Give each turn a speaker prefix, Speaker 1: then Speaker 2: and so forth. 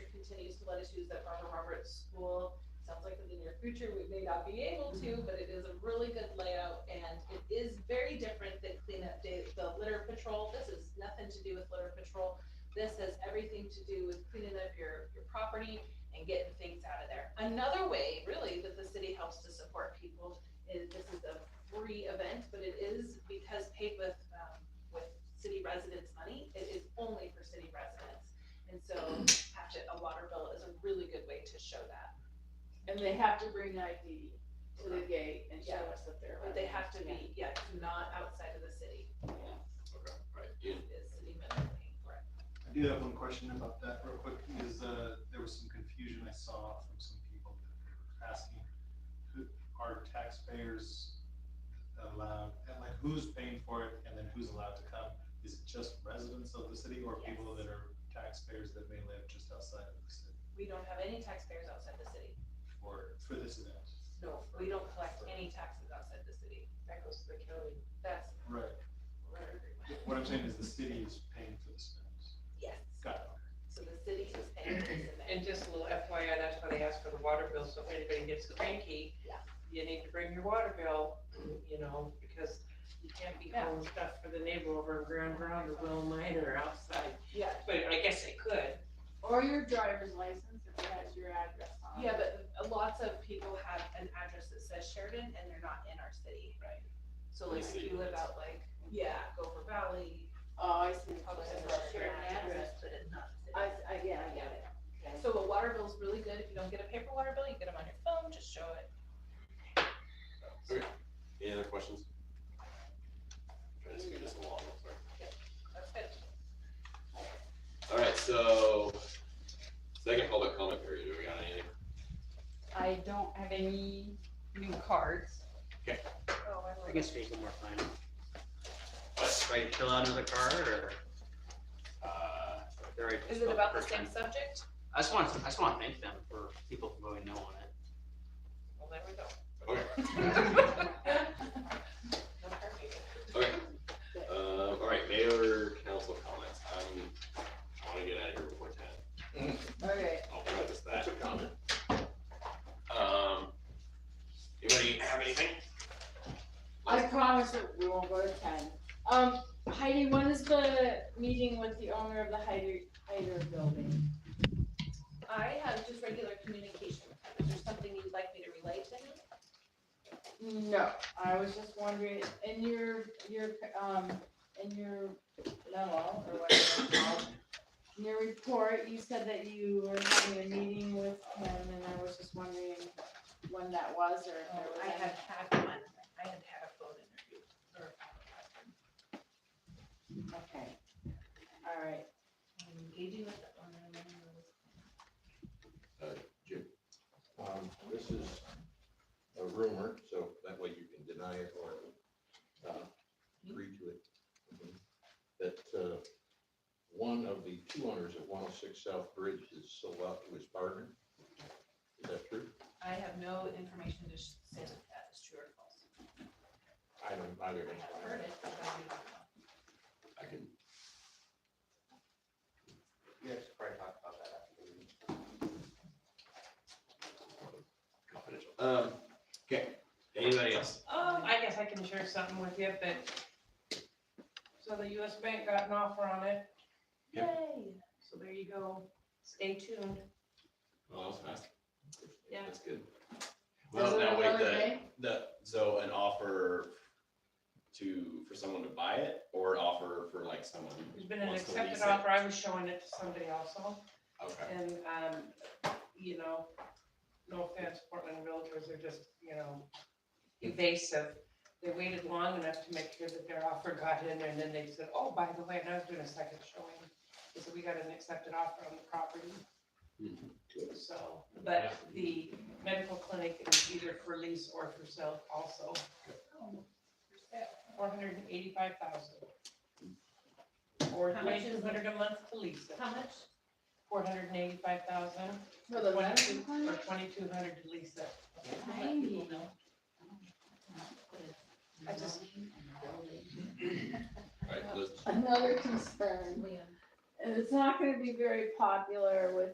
Speaker 1: continues to let us use that Farmer Roberts School. Sounds like in the near future, we may not be able to, but it is a really good layout and it is very different than cleanup day, the litter patrol. This is nothing to do with litter patrol. This has everything to do with cleaning up your, your property and getting things out of there. Another way, really, that the city helps to support people is this is a free event, but it is because paid with, um, with city residents' money, it is only for city residents. And so actually, a water bill is a really good way to show that.
Speaker 2: And they have to bring ID to the gate and show
Speaker 1: Yeah.
Speaker 2: us that they're.
Speaker 1: But they have to be, yeah, it's not outside of the city,
Speaker 3: Okay, right.
Speaker 1: it is city minimum wage, correct?
Speaker 4: I do have one question about that real quick, is, uh, there was some confusion I saw from some people that were asking, who, are taxpayers allowed, and like, who's paying for it, and then who's allowed to come? Is it just residents of the city, or people that are taxpayers that may live just outside of the city
Speaker 1: We don't have any taxpayers outside the city.
Speaker 4: for, for this event?
Speaker 1: No, we don't collect any taxes outside the city. That goes to the county. That's.
Speaker 4: Right, what I'm saying is the city is paying for this event.
Speaker 1: Yes,
Speaker 4: Got it.
Speaker 1: so the city is paying for this event.
Speaker 5: And just a little FYI, that's why they ask for the water bill, so if anybody gets cranky,
Speaker 1: Yeah.
Speaker 5: you need to bring your water bill, you know, because you can't be
Speaker 1: Yeah.
Speaker 5: hauling stuff for the neighbor over in Grand Ground or Will Mine or outside,
Speaker 1: Yeah,
Speaker 5: but I guess they could.
Speaker 2: Or your driver's license if it has your address on it.
Speaker 1: Yeah, but lots of people have an address that says Sheridan and they're not in our city.
Speaker 5: Right.
Speaker 1: So like if you live out like, yeah, Gopher Valley,
Speaker 2: Oh, I see.
Speaker 1: probably has
Speaker 2: It's
Speaker 1: a
Speaker 2: your
Speaker 1: Sheridan address, but it's not the
Speaker 2: I,
Speaker 1: city.
Speaker 2: I, yeah, I get it. Okay.
Speaker 1: So a water bill's really good. If you don't get a paper water bill, you get them on your phone, just show it.
Speaker 3: Any other questions? Trying to speed this along, I'm sorry.
Speaker 1: That's good.
Speaker 3: All right, so second public comment period, do we got anything?
Speaker 6: I don't have any new cards.
Speaker 1: Oh, I
Speaker 7: I
Speaker 1: like
Speaker 7: guess
Speaker 1: it.
Speaker 7: speak one more time.
Speaker 3: What?
Speaker 7: Try to fill out another card or
Speaker 3: Uh,
Speaker 7: they're already
Speaker 1: Is
Speaker 7: filled
Speaker 1: it
Speaker 7: out
Speaker 1: about the
Speaker 7: first
Speaker 1: same
Speaker 7: time.
Speaker 1: subject?
Speaker 7: I just want, I just want to thank them for people voting no on it.
Speaker 5: Well, there we go.
Speaker 3: okay, okay. Um, all right, mayor council comments. I'm, I wanna get out of here before ten.
Speaker 2: Okay.
Speaker 3: I'll preface that. Um, anybody have anything?
Speaker 2: I promise that we won't go to ten. Um, Heidi, when is the meeting with the owner of the Hyder, Hyder building?
Speaker 1: I have just regular communication. Is there something you'd like me to relay to him?
Speaker 2: No, I was just wondering, in your, your, um, in your memo or whatever it's called, in your report, you said that you were having a meeting with him and I was just wondering when that was or if there was
Speaker 1: I
Speaker 2: any.
Speaker 1: have had one, I had had a phone interview or
Speaker 2: Okay. All right.
Speaker 1: I'm engaging with the owner. and then I was
Speaker 8: Um, this is a rumor, so that way you can deny it or, uh, agree to it. That, uh, one of the two owners of one oh six South Bridge is sold out to his partner. Is that true?
Speaker 1: I have no information to sh- say that that is true or false.
Speaker 8: I don't, neither
Speaker 1: I
Speaker 8: of us.
Speaker 1: have heard it, but I do not know.
Speaker 3: I can,
Speaker 8: Yes, probably talk about that after the meeting.
Speaker 3: confidential. Um, okay, anybody else?
Speaker 5: Um, I guess I can share something with you, but, so the US Bank got an offer on it,
Speaker 1: Yay.
Speaker 5: so there you go, stay tuned.
Speaker 3: Well, that was fast.
Speaker 5: Yeah.
Speaker 3: That's good.
Speaker 2: Is
Speaker 3: Well,
Speaker 2: it
Speaker 3: now wait,
Speaker 2: another
Speaker 3: the,
Speaker 2: day?
Speaker 3: the, so an offer to, for someone to buy it or an offer for like someone?
Speaker 5: There's been an
Speaker 3: wants to lease
Speaker 5: accepted
Speaker 3: it?
Speaker 5: offer, I was showing it to somebody also.
Speaker 3: Okay,
Speaker 5: And, um, you know, no offense, Portland realtors are just, you know, evasive. They waited long enough to make sure that their offer got in there, and then they said, oh, by the way, and I was doing a second showing. They said, we got an accepted offer on the property. So, but the medical clinic is either for lease or for sale also. Four hundred and eighty-five thousand. Or
Speaker 1: How much is it?
Speaker 5: twenty-two hundred a month to lease it,
Speaker 1: How much?
Speaker 5: four hundred and eighty-five thousand.
Speaker 2: For the
Speaker 5: One,
Speaker 2: last
Speaker 5: two,
Speaker 2: one?
Speaker 5: Or twenty-two hundred to lease it.
Speaker 2: Heidi.
Speaker 5: I just,
Speaker 3: alright, let's-
Speaker 2: Another concern,
Speaker 1: Leon.
Speaker 2: and it's not gonna be very popular with